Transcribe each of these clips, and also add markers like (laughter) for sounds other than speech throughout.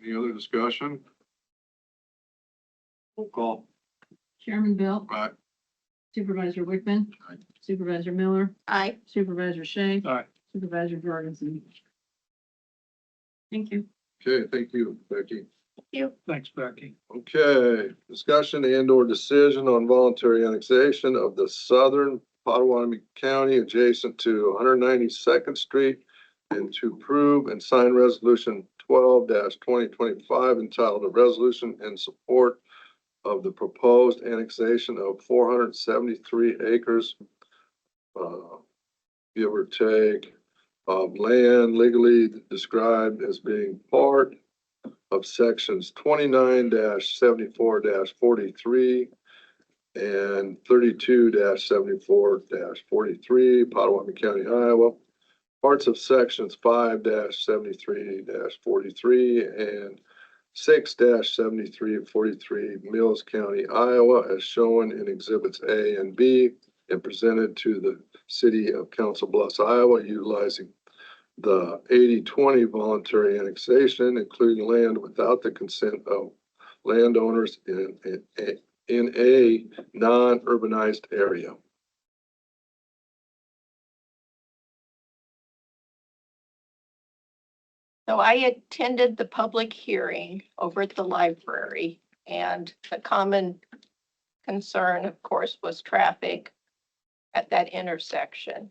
Further discussion? Roll call. Chairman Belt, Aye. Supervisor Wickman, Aye. Supervisor Miller, Aye. Supervisor Shay, Aye. Supervisor Jorgensen. Thank you. Okay, thank you, Becky. Thanks, Becky. Okay, discussion and or decision on voluntary annexation of the southern Potawatomi County adjacent to one hundred ninety-second Street and to approve and sign resolution twelve twenty twenty-five entitled a resolution in support of the proposed annexation of four hundred seventy-three acres, uh, give or take, of land legally described as being part of sections twenty-nine seventy-four forty-three and thirty-two seventy-four forty-three, Potawatomi County, Iowa. Parts of sections five seventy-three forty-three and six 73 43 Mills County, Iowa, as shown in exhibits A and B and presented to the city of Council Bluffs, Iowa, utilizing the 80-20 voluntary annexation, including land without the consent of landowners in, in, in a non-urbanized area. So I attended the public hearing over at the library and the common concern, of course, was traffic at that intersection.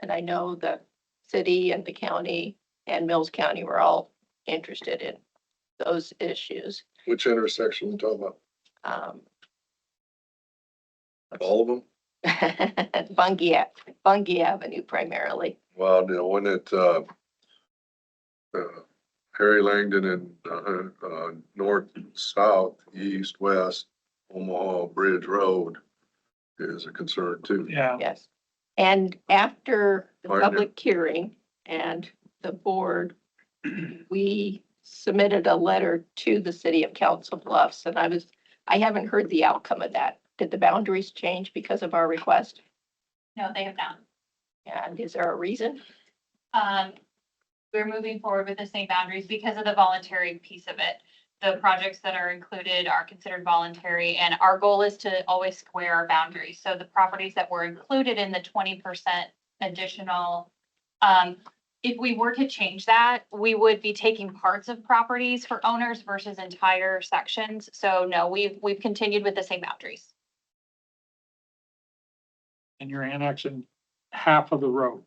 And I know the city and the county and Mills County were all interested in those issues. Which intersection we talking about? Um, (laughs) All of them? Bungie, Ave- Bungie Avenue primarily. Well, the one at, uh, uh, Harry Langdon and, uh, uh, north, south, east, west, Omaha Bridge Road is a concern too. Yeah, Yes. And after the Pardon? public hearing and the board, we submitted a letter to the city of Council Bluffs and I was, I haven't heard the outcome of that. Did the boundaries change because of our request? No, they have not. And is there a reason? Um, we're moving forward with the same boundaries because of the voluntary piece of it. The projects that are included are considered voluntary and our goal is to always square our boundaries. So the properties that were included in the twenty percent additional, um, if we were to change that, we would be taking parts of properties for owners versus entire sections. So no, we've, we've continued with the same boundaries. and you're annexing half of the road.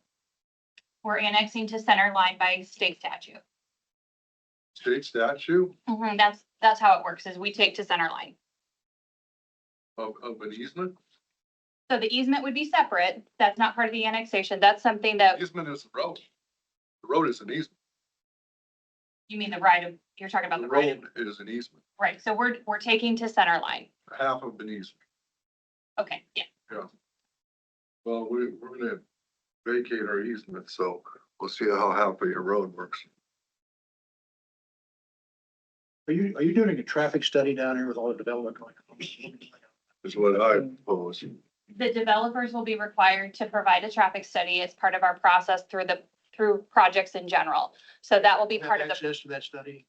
We're annexing to center line by state statute. State statute Mhm, that's, that's how it works is we take to center line. of, of an easement? So the easement would be separate. That's not part of the annexation. That's something that, Easement is a road. The road is an easement. you mean the right of, you're talking about The the right of, road is an easement, right? So we're, we're taking to center line. half of an easement. Okay, yeah. Well, we, we're gonna vacate our easement, so we'll see how half of your road works. Are you, are you doing a traffic study down here with all the development going on? Is what I propose. The developers will be required to provide a traffic study as part of our process through the, through projects in general. So that will be Have part of the, access to that study?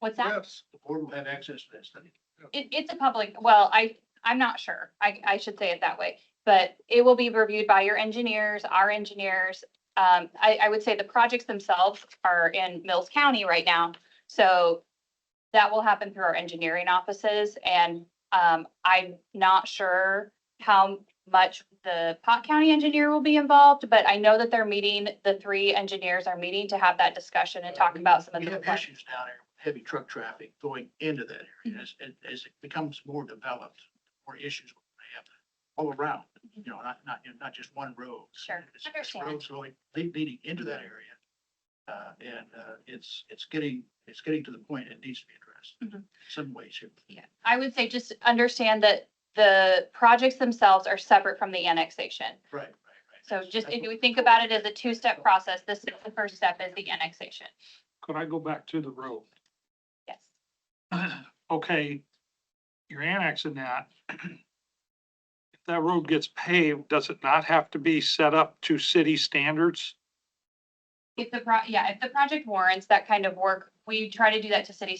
what's that? Yes, The board will have access to that study. It, it's a public, well, I, I'm not sure. I, I should say it that way. But it will be reviewed by your engineers, our engineers. Um, I, I would say the projects themselves are in Mills County right now. So that will happen through our engineering offices and, um, I'm not sure how much the Pot County engineer will be involved, but I know that they're meeting, the three engineers are meeting to have that discussion and talk about some of We the. have issues down here, with heavy truck traffic going into that Mm-hmm. area as, as- as it becomes more developed, more issues we may have all around, you know, not, not, not just one road. Mm-hmm. Sure, It's- it's understand. Mm-hmm. Roads going, lead- leading into that area. Uh, and, uh, it's, it's getting, it's getting to the point it needs to be addressed in Mhm. some ways here. Yeah, I would say just understand that the projects themselves are separate from the annexation. Right, right, right. So just if That's you what- think about it as a two-step process, this is the first step is the annexation. Could I go back to the road? Yes. Okay, you're annexing that. (clears throat) If that road gets paved, does it not have to be set up to city standards? If the pro, yeah, if the project warrants that kind of work, we try to do that to city